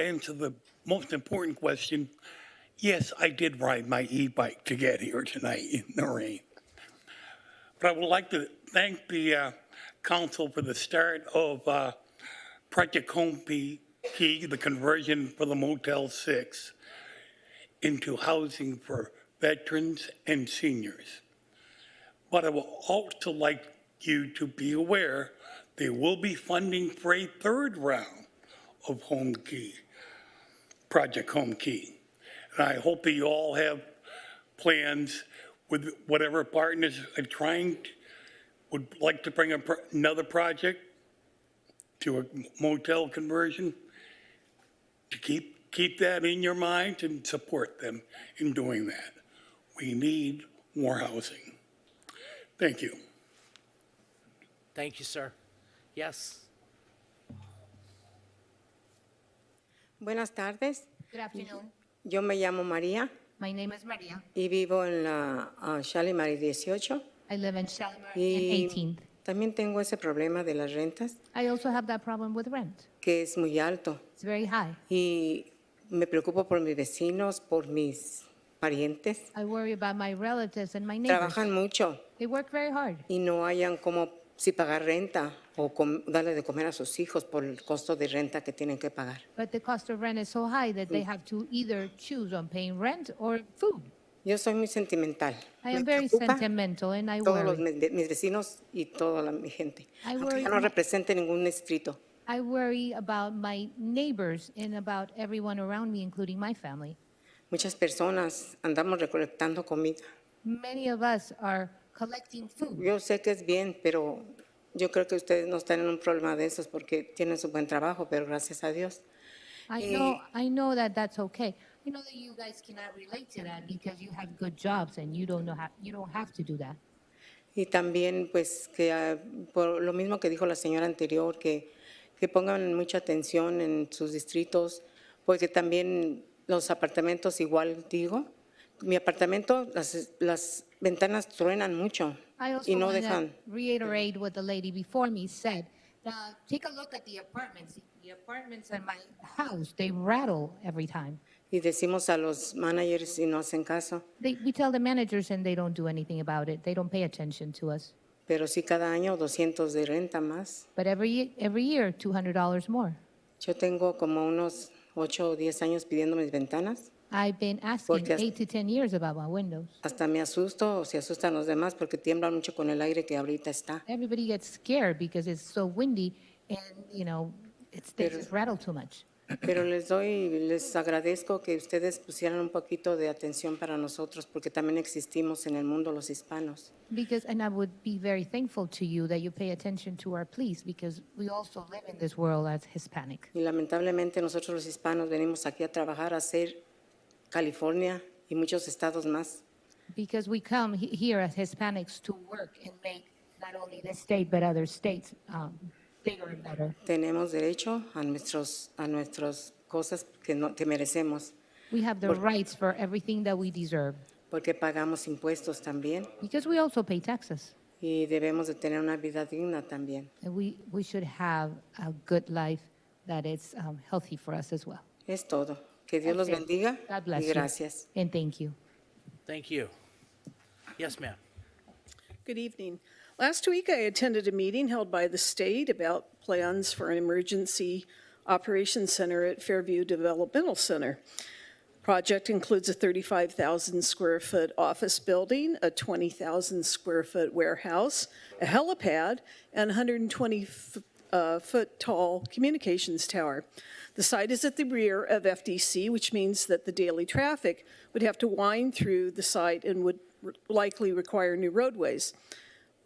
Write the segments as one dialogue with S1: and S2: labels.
S1: answer the most important question, yes, I did ride my e-bike to get here tonight in the rain. But I would like to thank the uh, council for the start of uh, Project Home Key, the conversion for the Motel 6 into housing for veterans and seniors. But I would also like you to be aware, they will be funding for a third round of Home Key, Project Home Key. And I hope that you all have plans with whatever partners are trying, would like to bring a pro- another project to a motel conversion, to keep, keep that in your mind and support them in doing that. We need more housing. Thank you.
S2: Thank you, sir. Yes.
S3: Buenas tardes,
S4: Good afternoon.
S3: yo me llamo María
S4: Mm-hmm. My name is Maria.
S3: y vivo en la ah, Shalimar 18
S4: I live in Shalimar and
S3: y
S4: 18th.
S3: también tengo ese problema de las rentas
S4: I also have that problem with rent.
S3: que es muy alto
S4: It's very high.
S3: y me preocupo por mis vecinos, por mis parientes.
S4: I worry about my relatives and my neighbors.
S3: Trabajan mucho
S4: They work very hard.
S3: y no hayan como si pagar renta o com- darle de comer a sus hijos por el costo de renta que tienen que pagar.
S4: But the cost of rent is so high that they have to either choose on paying rent or food.
S3: Yo soy muy sentimental.
S4: I
S3: Me
S4: am very
S3: preocupa
S4: sentimental and I
S3: todos los,
S4: worry.
S3: mes- de- mis vecinos y toda la, mi gente.
S4: I
S3: Aunque
S4: worry
S3: ya no
S4: mu-
S3: represente ningún distrito.
S4: I worry about my neighbors and about everyone around me, including my family.
S3: Muchas personas andamos recolectando comida.
S4: Many of us are collecting food.
S3: Yo sé que es bien, pero yo creo que ustedes no están en un problema de esos porque tienen su buen trabajo, pero gracias a Dios.
S4: I
S3: Eh,
S4: know, I know that that's okay. I know that you guys cannot relate to that because you have good jobs and you don't know how, you don't have to do that.
S3: Y también, pues, que ah, por lo mismo que dijo la señora anterior, que, que pongan mucha atención en sus distritos, porque también los apartamentos, igual digo, mi apartamento, las, las ventanas truenan mucho
S4: I also
S3: y no
S4: want to
S3: dejan.
S4: reiterate what the lady before me said. Now, take a look at the apartments. The apartments in my house, they rattle every time.
S3: Y decimos a los managers y no hacen caso.
S4: They, we tell the managers and they don't do anything about it. They don't pay attention to us.
S3: Pero sí cada año 200 de renta más.
S4: But every, ye- every year, $200 more.
S3: Yo tengo como unos 8 o 10 años pidiendo mis ventanas.
S4: I've been asking
S3: Porque as-
S4: eight to 10 years about my windows.
S3: Hasta me asusto o se asustan los demás porque tiemblan mucho con el aire que ahorita está.
S4: Everybody gets scared because it's so windy and, you know, it's, they
S3: Pero-
S4: just rattle too much.
S3: Pero les doy, les agradezco que ustedes pusieran un poquito de atención para nosotros porque también existimos en el mundo los hispanos.
S4: Because, and I would be very thankful to you that you pay attention to our police because we also live in this world as Hispanic.
S3: Y lamentablemente nosotros los hispanos venimos aquí a trabajar, a hacer California y muchos estados más.
S4: Because we come he- here as Hispanics to work and make not only this state, but other states um, bigger and better.
S3: Tenemos derecho a nuestros, a nuestras cosas que, no, que merecemos
S4: We have the rights for everything that we deserve
S3: porque pagamos impuestos también.
S4: because we also pay taxes.
S3: Y debemos de tener una vida digna también.
S4: And we, we should have a good life that is um, healthy for us as well.
S3: Es todo. Que Dios los
S4: That's it.
S3: bendiga
S4: God bless
S3: y
S4: you.
S3: gracias.
S4: And thank you.
S2: Thank you. Yes, ma'am.
S5: Good evening. Last week, I attended a meeting held by the state about plans for an emergency operations center at Fairview Developmental Center. Project includes a 35,000 square foot office building, a 20,000 square foot warehouse, a helipad, and 120 f- uh, foot tall communications tower. The site is at the rear of FDC, which means that the daily traffic would have to wind through the site and would r- likely require new roadways.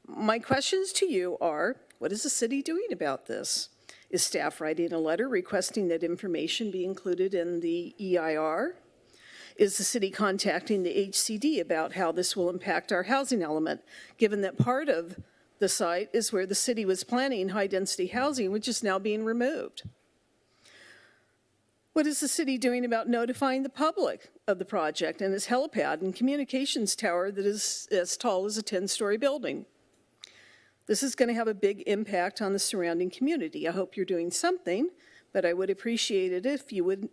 S5: My questions to you are, what is the city doing about this? Is staff writing a letter requesting that information be included in the EIR? Is the city contacting the HCD about how this will impact our housing element, given that part of the site is where the city was planning high-density housing, which is now being removed? What is the city doing about notifying the public of the project and its helipad and communications tower that is as tall as a 10-story building? This is going to have a big impact on the surrounding community. I hope you're doing something, But I would appreciate it if you would